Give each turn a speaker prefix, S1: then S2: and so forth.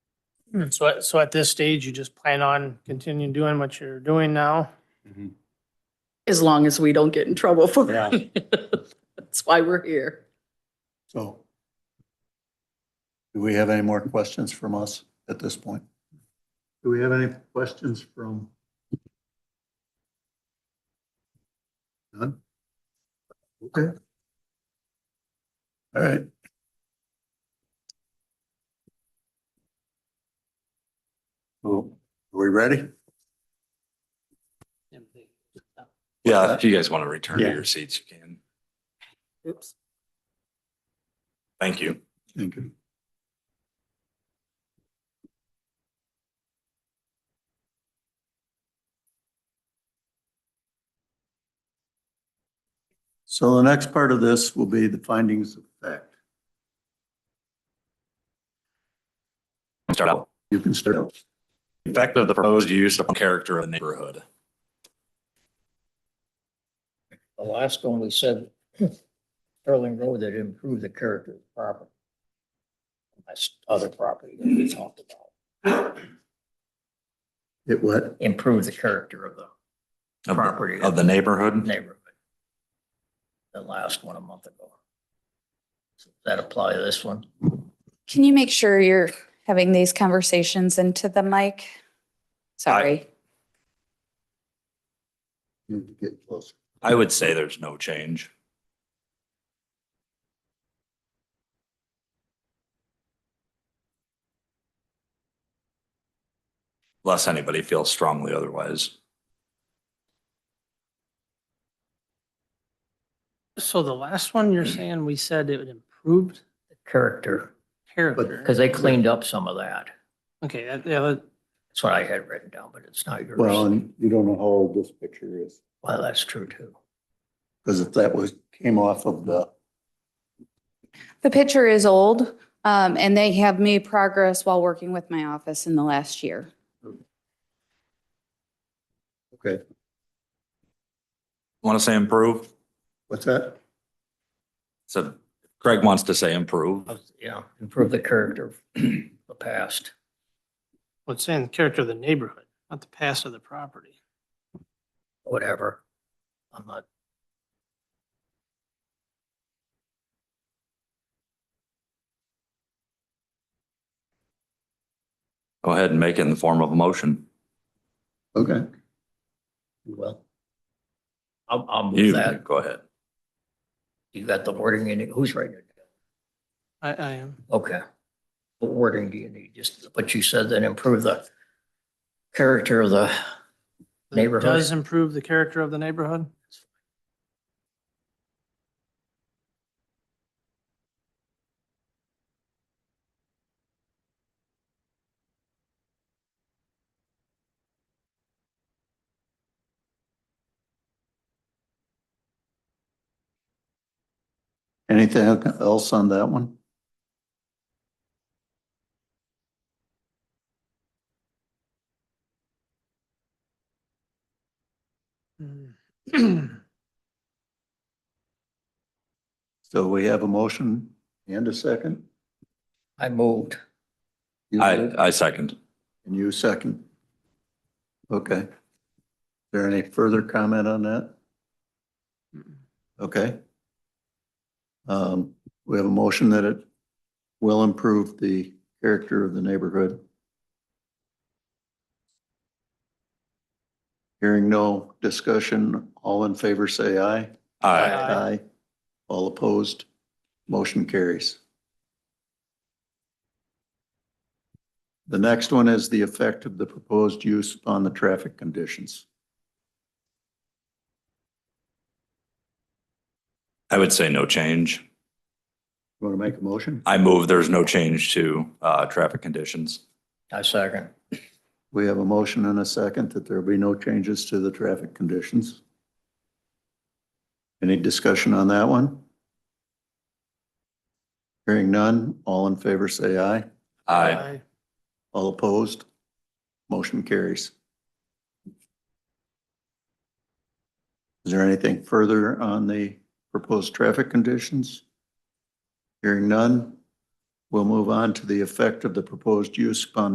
S1: So, at- so at this stage, you just plan on continuing doing what you're doing now?
S2: Mhm.
S3: as long as we don't get in trouble for
S2: Yeah.
S3: it. That's why we're here.
S4: So do we have any more questions from us at this point? Do we have any questions from? None? Okay. All right. So are we ready?
S5: Yeah, if you guys want to return to
S4: Yeah.
S5: your seats, you can.
S3: Oops.
S5: Thank you.
S4: Thank you. So the next part of this will be the findings of fact.
S5: Start out.
S4: You can start. out.
S5: Effect of the proposed use upon character of the neighborhood.
S6: The last one, we said Sterling Road that improved the character of the property. That's other property that we talked about,
S4: It what?
S6: improve the character of the
S5: of the-
S6: Property.
S5: Of the neighborhood.
S6: neighborhood. The last one a month ago. Does That apply to this one?
S7: Can you make sure you're having these conversations into the mic? Sorry.
S4: Need to Get closer.
S5: I would say there's no change. Unless anybody feels strongly otherwise.
S1: So the last one, you're saying we said it improved
S6: The Character,
S1: character?
S6: because they cleaned up some of that.
S1: Okay, that- yeah, that-
S6: That's what I had written down, but it's not yours.
S4: Well, and you don't know how old this picture is,
S6: Well, that's true too.
S4: because if that was, came off of the,
S7: The picture is old, um, and they have made progress while working with my office in the last year.
S4: okay,
S5: Want to say improve?
S4: what's that?
S5: So Craig wants to say improve.
S6: Yeah, improve the character of the past.
S1: well, it's saying the character of the neighborhood, not the past of the property.
S6: whatever. I'm not.
S5: Go ahead and make it in the form of a motion.
S4: Okay,
S6: Well. I'll, I'll
S5: You,
S6: move that.
S5: go ahead.
S6: You got the wording in it. Who's writing it?
S1: I, I am.
S6: Okay. What wording do you need? Just what you said, then improve the character of the,
S1: It
S6: Neighborhood.
S1: Does improve the character of the neighborhood?
S4: anything else on that one?
S1: Hmm.
S4: So we have a motion and a second?
S6: I moved.
S4: You
S5: I,
S4: did,
S5: I second.
S4: And you second? Okay. Is there any further comment on that? Okay. Um, we have a motion that it will improve the character of the neighborhood. Hearing no discussion, all in favor say aye. Uh,
S5: Aye.
S1: Aye.
S4: All opposed, motion carries. The next one is the effect of the proposed use upon the traffic conditions.
S5: I would say no change.
S4: Want to make a motion?
S5: I move there's no change to uh, traffic conditions.
S6: I second.
S4: We have a motion and a second that there be no changes to the traffic conditions. Any discussion on that one? Hearing none, all in favor say aye.
S5: Aye.
S4: All opposed? Motion carries. Is there anything further on the proposed traffic conditions? Hearing none, we'll move on to the effect of the proposed use upon